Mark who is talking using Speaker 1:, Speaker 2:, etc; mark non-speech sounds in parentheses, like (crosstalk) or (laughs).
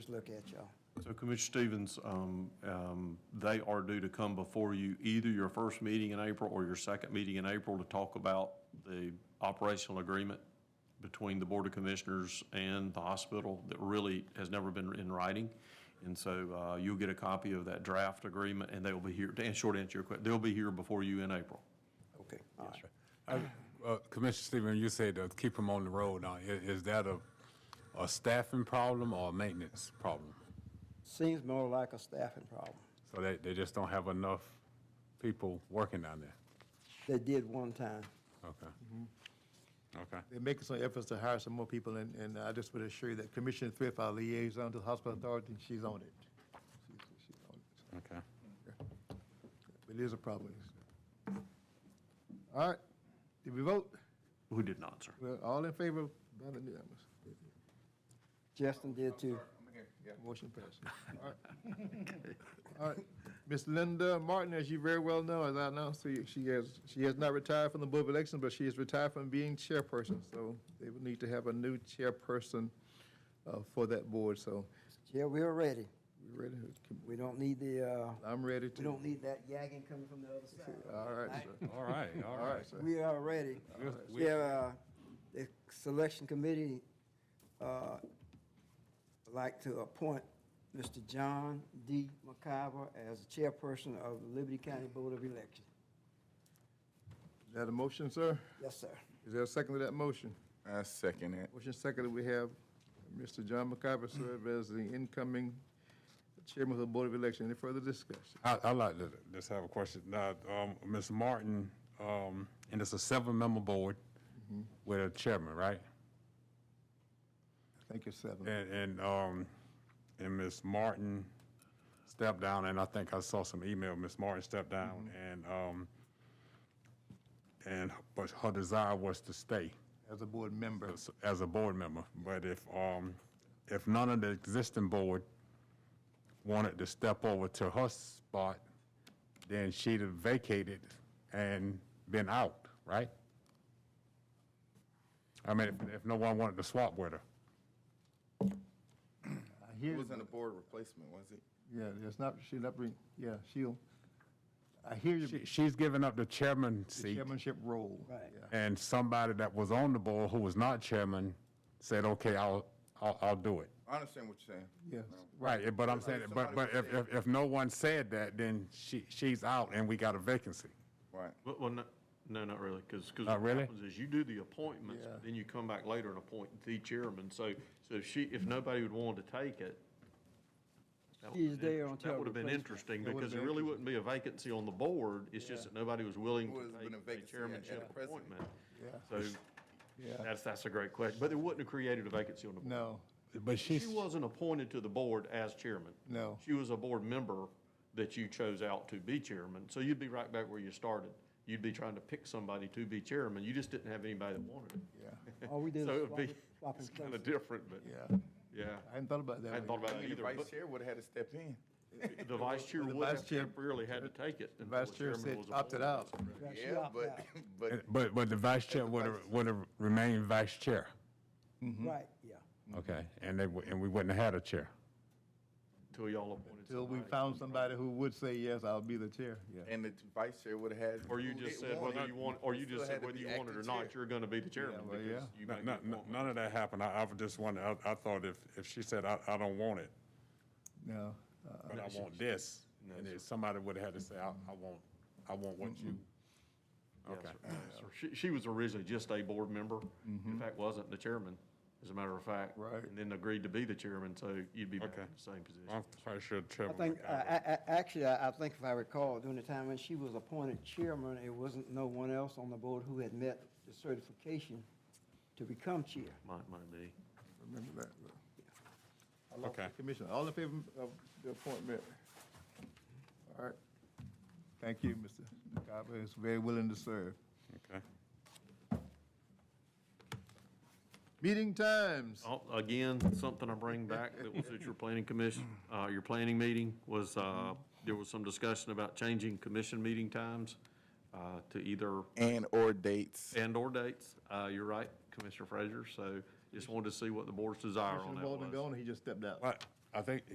Speaker 1: look at, y'all.
Speaker 2: So Commissioner Stevens, um, um, they are due to come before you, either your first meeting in April or your second meeting in April to talk about the operational agreement between the Board of Commissioners and the hospital that really has never been in writing. And so uh, you'll get a copy of that draft agreement, and they will be here, to answer, short answer your question, they'll be here before you in April.
Speaker 1: Okay, all right.
Speaker 3: Uh, Commissioner Stevens, you said to keep them on the road. Now, i- is, that a, a staffing problem or a maintenance problem?
Speaker 1: Seems more like a staffing problem.
Speaker 3: So they, they just don't have enough people working down there?
Speaker 1: They did one time.
Speaker 3: Okay. Mm-hmm. Okay.
Speaker 4: They're making some efforts to hire some more people, and, and I just would assure you that Commissioner Thrift, our liaison to the hospital authority, she's on it. She's- she's on it.
Speaker 3: Okay.
Speaker 4: But it is a problem. All right, did we vote?
Speaker 2: Who did not, sir?
Speaker 4: Well, all in favor of Donna Newhouse?
Speaker 1: Justin
Speaker 2: Oh,
Speaker 1: did too.
Speaker 4: Motion passed. All right. All right, Ms. Linda Martin, as you very well know, as I announced to you, she has, she has not retired from the Board of Elections, but she is retired from being chairperson. So they will need to have a new chairperson uh, for that board, so
Speaker 1: Yeah, we are ready.
Speaker 4: we ready? to-
Speaker 1: We don't need the, uh,
Speaker 4: I'm ready to.
Speaker 1: we don't need that yagging coming from the other side.
Speaker 4: All right, sir.
Speaker 3: (laughs) All right, all
Speaker 4: All right,
Speaker 3: right.
Speaker 4: sir.
Speaker 1: We are ready. We have, uh, the selection committee, uh, like to appoint Mr. John D. McIver as chairperson of the Liberty County Board of Elections.
Speaker 4: Is that a motion, sir?
Speaker 1: Yes, sir.
Speaker 4: Is there a second to that motion?
Speaker 5: I second it.
Speaker 4: Motion seconded, we have Mr. John McIver serve as the incoming chairman of the Board of Election. Any further discussion?
Speaker 3: I, I'd like to just have a question. Now, um, Ms. Martin, um, and it's a seven-member board
Speaker 5: Mm-hmm.
Speaker 3: with a chairman, right?
Speaker 4: Thank you, seven.
Speaker 3: And, and, um, and Ms. Martin stepped down, and I think I saw some email, Ms. Martin stepped down, and, um, and, but her desire was to stay
Speaker 4: As a board member,
Speaker 3: as, as a board member. But if, um, if none of the existing board wanted to step over to her spot, then she'd have vacated and been out, right? I mean, if, if no one wanted to swap with her.
Speaker 4: I
Speaker 5: It
Speaker 4: hear,
Speaker 5: wasn't a board replacement, was it?
Speaker 4: yeah, it's not, she'll not bring, yeah, she'll, I hear you,
Speaker 3: She, she's given up the chairman
Speaker 4: the
Speaker 3: seat,
Speaker 4: chairmanship role.
Speaker 1: Right.
Speaker 4: Yeah.
Speaker 3: and somebody that was on the board who was not chairman said, "Okay, I'll, I'll, I'll do it."
Speaker 5: I understand what you're saying.
Speaker 4: Yes,
Speaker 3: Right, but I'm saying, but, but if, if, if no one said that, then she, she's out, and we got a vacancy.
Speaker 5: Right.
Speaker 2: Well, well, no, no, not really, because, because
Speaker 3: Not
Speaker 2: what
Speaker 3: really?
Speaker 2: happens is you do the appointments,
Speaker 4: Yeah.
Speaker 2: then you come back later and appoint the chairman. So, so if she, if nobody would want to take it, that
Speaker 1: She's
Speaker 2: would,
Speaker 1: there until
Speaker 2: that would have been
Speaker 1: replacement.
Speaker 2: interesting,
Speaker 4: That would've
Speaker 2: because it
Speaker 4: been
Speaker 2: really wouldn't be a vacancy on the board. It's just that nobody was willing
Speaker 5: Would've
Speaker 2: to
Speaker 5: been a
Speaker 2: take a
Speaker 5: vacancy at- at
Speaker 2: chairmanship
Speaker 5: the president.
Speaker 2: appointment.
Speaker 4: Yeah.
Speaker 2: So
Speaker 4: yeah,
Speaker 2: that's, that's a great question, but it wouldn't have created a vacancy on the board.
Speaker 4: no,
Speaker 3: But
Speaker 2: She wasn't appointed to the board as chairman.
Speaker 4: No.
Speaker 2: She was a board member that you chose out to be chairman. So you'd be right back where you started. You'd be trying to pick somebody to be chairman. You just didn't have anybody that wanted it.
Speaker 4: yeah,
Speaker 1: All we did
Speaker 2: So
Speaker 1: is
Speaker 2: it
Speaker 1: swap
Speaker 2: would be,
Speaker 1: it- swap
Speaker 2: it's
Speaker 1: and
Speaker 2: kind of
Speaker 1: place.
Speaker 2: different, but
Speaker 4: yeah.
Speaker 2: yeah.
Speaker 4: I hadn't thought about that.
Speaker 2: I hadn't thought about
Speaker 5: I
Speaker 2: it
Speaker 5: mean, the
Speaker 2: either.
Speaker 5: vice
Speaker 2: but
Speaker 5: chair would have had to step in.
Speaker 2: The vice chair would
Speaker 4: The vice
Speaker 2: have
Speaker 4: chair-
Speaker 2: temporarily had to take it.
Speaker 4: The vice chair said opted out.
Speaker 1: Yeah, she
Speaker 5: Yeah,
Speaker 1: opted
Speaker 5: but,
Speaker 1: out.
Speaker 5: (laughs) but
Speaker 3: But, but the vice chair would have, would have remained vice chair,
Speaker 1: Right, yeah.
Speaker 3: okay, and they, wou- and we wouldn't have had a chair.
Speaker 2: Till y'all appointed
Speaker 4: Till
Speaker 2: somebody.
Speaker 4: we found somebody who would say, yes, I'll be the chair, yeah.
Speaker 5: and the vice chair would have had.
Speaker 2: Or you
Speaker 5: who
Speaker 2: just
Speaker 5: didn't
Speaker 2: said
Speaker 5: want
Speaker 2: whether
Speaker 5: it.
Speaker 2: you want, or you
Speaker 5: Still
Speaker 2: just said
Speaker 5: had to
Speaker 2: whether
Speaker 5: be
Speaker 2: you wanted or
Speaker 5: active
Speaker 2: not,
Speaker 5: chair.
Speaker 2: you're going to be the chairman
Speaker 4: well,
Speaker 2: because
Speaker 4: yeah.
Speaker 2: you
Speaker 3: None,
Speaker 2: made
Speaker 3: none-
Speaker 2: the appointment.
Speaker 3: none of that happened. I, I was just wondering, I, I thought if, if she said, I, I don't want it,
Speaker 4: No, uh,
Speaker 3: but I want this, and then somebody would have had to say, I, I want, I want what you.
Speaker 2: Yes,
Speaker 3: Okay.
Speaker 2: sir. Yes, sir. Uh, She, she was originally just a board member. In fact, wasn't the chairman, as a matter of fact.
Speaker 4: Right.
Speaker 2: And then agreed to be the chairman, so you'd be back
Speaker 3: Okay.
Speaker 2: in the same position.
Speaker 3: I'm quite sure
Speaker 1: I
Speaker 3: Chairman.
Speaker 1: think, uh,
Speaker 3: McIver-
Speaker 1: I, I, actually, I, I think if I recall, during the time when she was appointed chairman, it wasn't no one else on the board who had met the certification to become chair.
Speaker 2: Might, might be.
Speaker 4: remember that. though. I lost
Speaker 3: Okay.
Speaker 4: the Commissioner, all in favor of the appointment? All right. Thank you, Mr. McIver, is very willing to serve.
Speaker 3: Okay.
Speaker 4: Meeting times.
Speaker 2: Oh, Again, something I bring back that was at your planning commission, uh, your planning meeting was, uh, there was some discussion about changing commission meeting times, uh, to either
Speaker 5: And or dates.
Speaker 2: and/or dates. Uh, you're right, Commissioner Frazier, so just wanted to see what the board's desire on
Speaker 4: Commissioner
Speaker 2: that
Speaker 4: Walden
Speaker 2: was.
Speaker 4: gone, he just stepped out.
Speaker 3: But I think